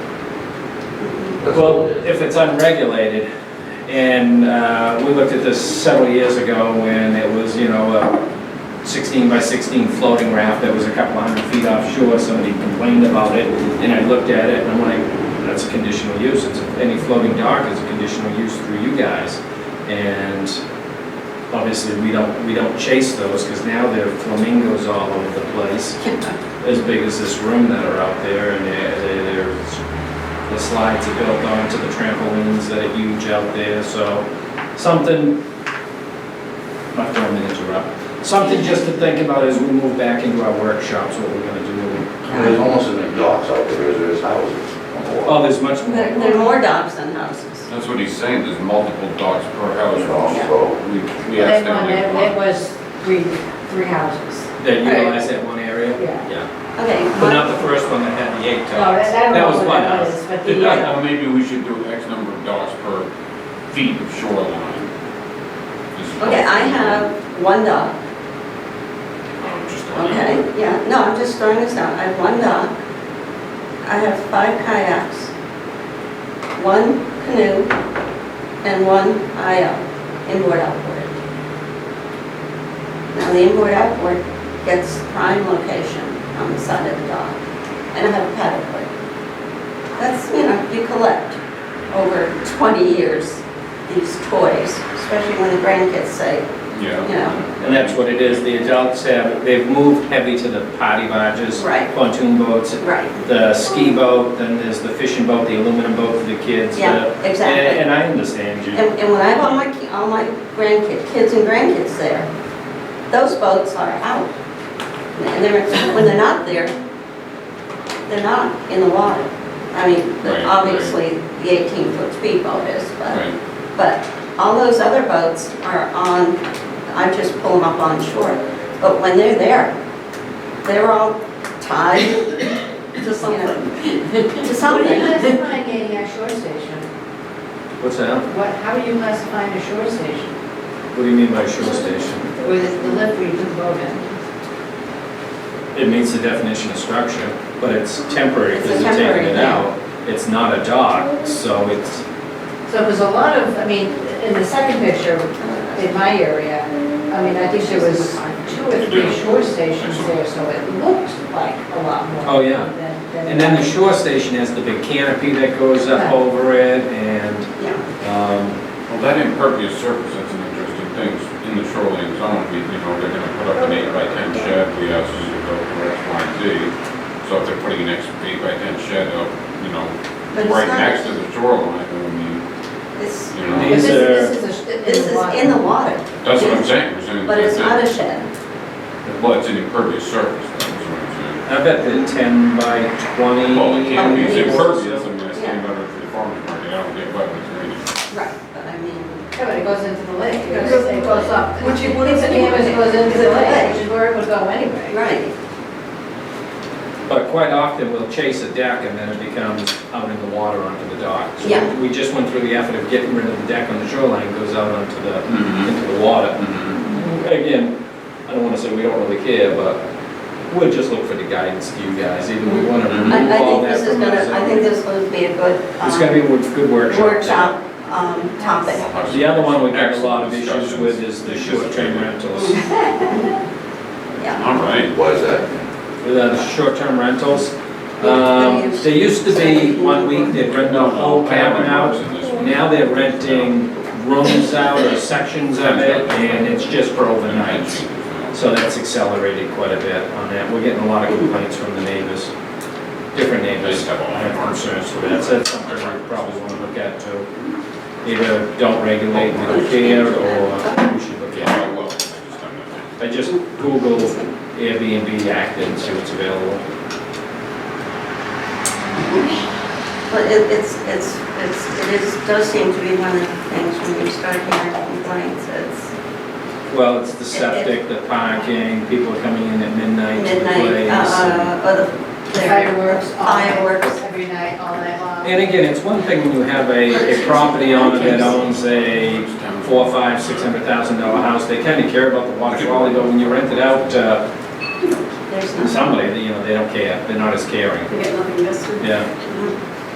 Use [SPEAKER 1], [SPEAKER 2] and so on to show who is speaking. [SPEAKER 1] That's
[SPEAKER 2] Well,
[SPEAKER 1] what it is.
[SPEAKER 2] if it's unregulated, and uh, we looked at this several years ago when it was, you know, a 16 by 16 floating raft that was a couple hundred feet offshore, somebody complained about it, and I looked at it, and I'm like, that's a conditional use, it's, any floating dock is a conditional use through you guys, and obviously, we don't, we don't chase those, because now there are flamingos all over the place, as big as this room that are out there, and they're, they're they're the slides are built onto the trampolines that are huge out there, so something, not going to interrupt, something just to think about as we move back into our workshops, what we're gonna do.
[SPEAKER 1] There's almost as many docks out there as there is houses on the water.
[SPEAKER 2] Oh, there's much
[SPEAKER 3] There
[SPEAKER 2] more.
[SPEAKER 3] there are more docks than houses.
[SPEAKER 4] That's what he's saying, there's multiple dogs per
[SPEAKER 1] You know,
[SPEAKER 4] house.
[SPEAKER 1] so,
[SPEAKER 4] We, we
[SPEAKER 5] They wanted,
[SPEAKER 4] accidentally.
[SPEAKER 5] it was three, three houses.
[SPEAKER 2] That utilize that one area?
[SPEAKER 5] Yeah.
[SPEAKER 3] Okay.
[SPEAKER 2] But not the first one that had the eight
[SPEAKER 5] No,
[SPEAKER 2] dogs.
[SPEAKER 5] that
[SPEAKER 2] That
[SPEAKER 5] that
[SPEAKER 2] was
[SPEAKER 5] was
[SPEAKER 2] one
[SPEAKER 5] what it
[SPEAKER 2] house.
[SPEAKER 5] was, but the, uh,
[SPEAKER 4] Well, maybe we should do X number of dogs per feet of shoreline. Just-
[SPEAKER 3] Okay, I have one dock,
[SPEAKER 4] Oh, just a-
[SPEAKER 3] okay? Yeah, no, I'm just throwing this out. I have one dock. I have five kayaks, one canoe, and one IO, inboard outboard. Now, the inboard outboard gets prime location on the side of the dock, and I have a paddle board. That's, you know, you collect over 20 years, these toys, especially when the grandkids say,
[SPEAKER 4] Yeah.
[SPEAKER 3] Yeah.
[SPEAKER 2] And that's what it is, the adults have, they've moved heavy to the potty barges.
[SPEAKER 3] Right.
[SPEAKER 2] Pontoon boats,
[SPEAKER 3] right,
[SPEAKER 2] the ski boat, then there's the fishing boat, the aluminum boat for the kids. the-
[SPEAKER 3] Yeah, exactly.
[SPEAKER 2] And and I understand you.
[SPEAKER 3] And, and when I have all my, ki- all my grandkids, kids and grandkids there, those boats are out. And they're, when they're not there, they're not in the water. I mean,
[SPEAKER 4] Right, right.
[SPEAKER 3] the- obviously, the eighteen foot speedboat is, but,
[SPEAKER 4] Right,
[SPEAKER 3] but all those other boats are on, I just pull them up on shore. But when they're there, they're all tied to something, to
[SPEAKER 5] what do you
[SPEAKER 3] something.
[SPEAKER 5] classify a uh, shore station?
[SPEAKER 2] What's that?
[SPEAKER 5] What, how do you classify a shore station?
[SPEAKER 2] What do you mean by shore station?
[SPEAKER 5] With the lift where you can boat in?
[SPEAKER 2] It meets the definition of structure, but it's temporary,
[SPEAKER 3] It's a
[SPEAKER 2] because it's taking
[SPEAKER 3] temporary,
[SPEAKER 2] it
[SPEAKER 3] yeah.
[SPEAKER 2] out. It's not a dock, so it's,
[SPEAKER 5] So there's a lot of, I mean, in the second picture, in my area, I mean, I think there was two or three shore stations there, so it looked like a lot more.
[SPEAKER 2] Oh, yeah.
[SPEAKER 5] than- than-
[SPEAKER 2] and then the shore station has the big canopy that goes up
[SPEAKER 5] Yeah.
[SPEAKER 2] over it, and,
[SPEAKER 3] Yeah.
[SPEAKER 2] um,
[SPEAKER 4] well, that impervious surface, that's an interesting thing, in the shoreline zone, we, you know, they're gonna put up an eight by ten shed, we asked you to go for X, Y, and Z. So if they're putting an X eight by ten shed up, you know,
[SPEAKER 3] But it's
[SPEAKER 4] right
[SPEAKER 3] not-
[SPEAKER 4] next to the shoreline, I mean,
[SPEAKER 3] It's,
[SPEAKER 4] you
[SPEAKER 5] But
[SPEAKER 4] know,
[SPEAKER 2] These
[SPEAKER 5] This
[SPEAKER 2] are-
[SPEAKER 5] this is a-
[SPEAKER 3] This is in the water,
[SPEAKER 4] that's what I'm saying. we're saying
[SPEAKER 3] but it's
[SPEAKER 4] that-
[SPEAKER 3] not a shed.
[SPEAKER 4] Well, it's an impervious surface, that's what I'm saying.
[SPEAKER 2] I bet the ten by twenty.
[SPEAKER 4] Well, it can be, it's
[SPEAKER 3] Yeah.
[SPEAKER 4] impervious, I'm asking about it for the farmer's market, I don't get why it's
[SPEAKER 3] Right. But I mean,
[SPEAKER 5] Yeah, but it goes into the lake,
[SPEAKER 3] It
[SPEAKER 5] it
[SPEAKER 3] goes-
[SPEAKER 5] goes, it goes up.
[SPEAKER 3] Which it would-
[SPEAKER 5] It's an image, it goes into
[SPEAKER 3] Is it
[SPEAKER 5] the
[SPEAKER 3] the lake?
[SPEAKER 5] lake, which is where it would go anyway.
[SPEAKER 3] right,
[SPEAKER 2] But quite often, we'll chase a deck, and then it becomes out in the water onto the dock. So
[SPEAKER 3] Yeah.
[SPEAKER 2] We just went through the effort of getting rid of the deck on the shoreline, goes out onto the,
[SPEAKER 4] Mhm.
[SPEAKER 2] into the water.
[SPEAKER 4] raining.
[SPEAKER 2] Again, I don't wanna say we don't really care, but we'll just look for the guidance to you guys, either we wanna
[SPEAKER 4] Mhm.
[SPEAKER 3] I, I
[SPEAKER 2] remove all
[SPEAKER 3] think
[SPEAKER 2] that
[SPEAKER 3] this is
[SPEAKER 2] from
[SPEAKER 3] gonna,
[SPEAKER 2] the
[SPEAKER 3] I think
[SPEAKER 2] zone.
[SPEAKER 3] this would be a good,
[SPEAKER 2] It's gonna
[SPEAKER 3] um,
[SPEAKER 2] be a wo- good workshop.
[SPEAKER 3] workshop, um, topic.
[SPEAKER 2] The other one we got a lot of issues with is the short-term rentals.
[SPEAKER 3] Yeah,
[SPEAKER 4] All right,
[SPEAKER 1] why is that?
[SPEAKER 2] uh, The short-term rentals, um, they used to be, one week they'd rent the whole cabin out, now they're renting rooms out or sections of it, and it's just for overnights. So that's accelerated quite a bit on that. We're getting a lot of complaints from the neighbors, different neighbors. I have concerns with that, so that's something we probably want to look at too. Either don't regulate, we don't care, or we should look
[SPEAKER 4] Yeah,
[SPEAKER 2] at it.
[SPEAKER 4] I will, I just don't know.
[SPEAKER 2] I just Google Airbnb Acton, and see what's available.
[SPEAKER 3] but it, it's, it's, it's, it is, does seem to be one of the things when you start hearing complaints, it's
[SPEAKER 2] Well, it's the septic, the parking, people coming in at midnight to the
[SPEAKER 3] midnight,
[SPEAKER 2] place. and-
[SPEAKER 3] uh, uh, or the.
[SPEAKER 5] The Fireworks, all night,
[SPEAKER 3] Fireworks.
[SPEAKER 5] every night, all night long.
[SPEAKER 2] And again, it's one thing when you have a, a property owner that owns a four, five, six hundred thousand dollar house, they kinda care about the water quality, but when you rent it out to
[SPEAKER 3] There's no.
[SPEAKER 2] somebody, you know, they don't care, they're not as caring.
[SPEAKER 6] They get nothing listed.
[SPEAKER 2] Yeah,
[SPEAKER 3] Mm.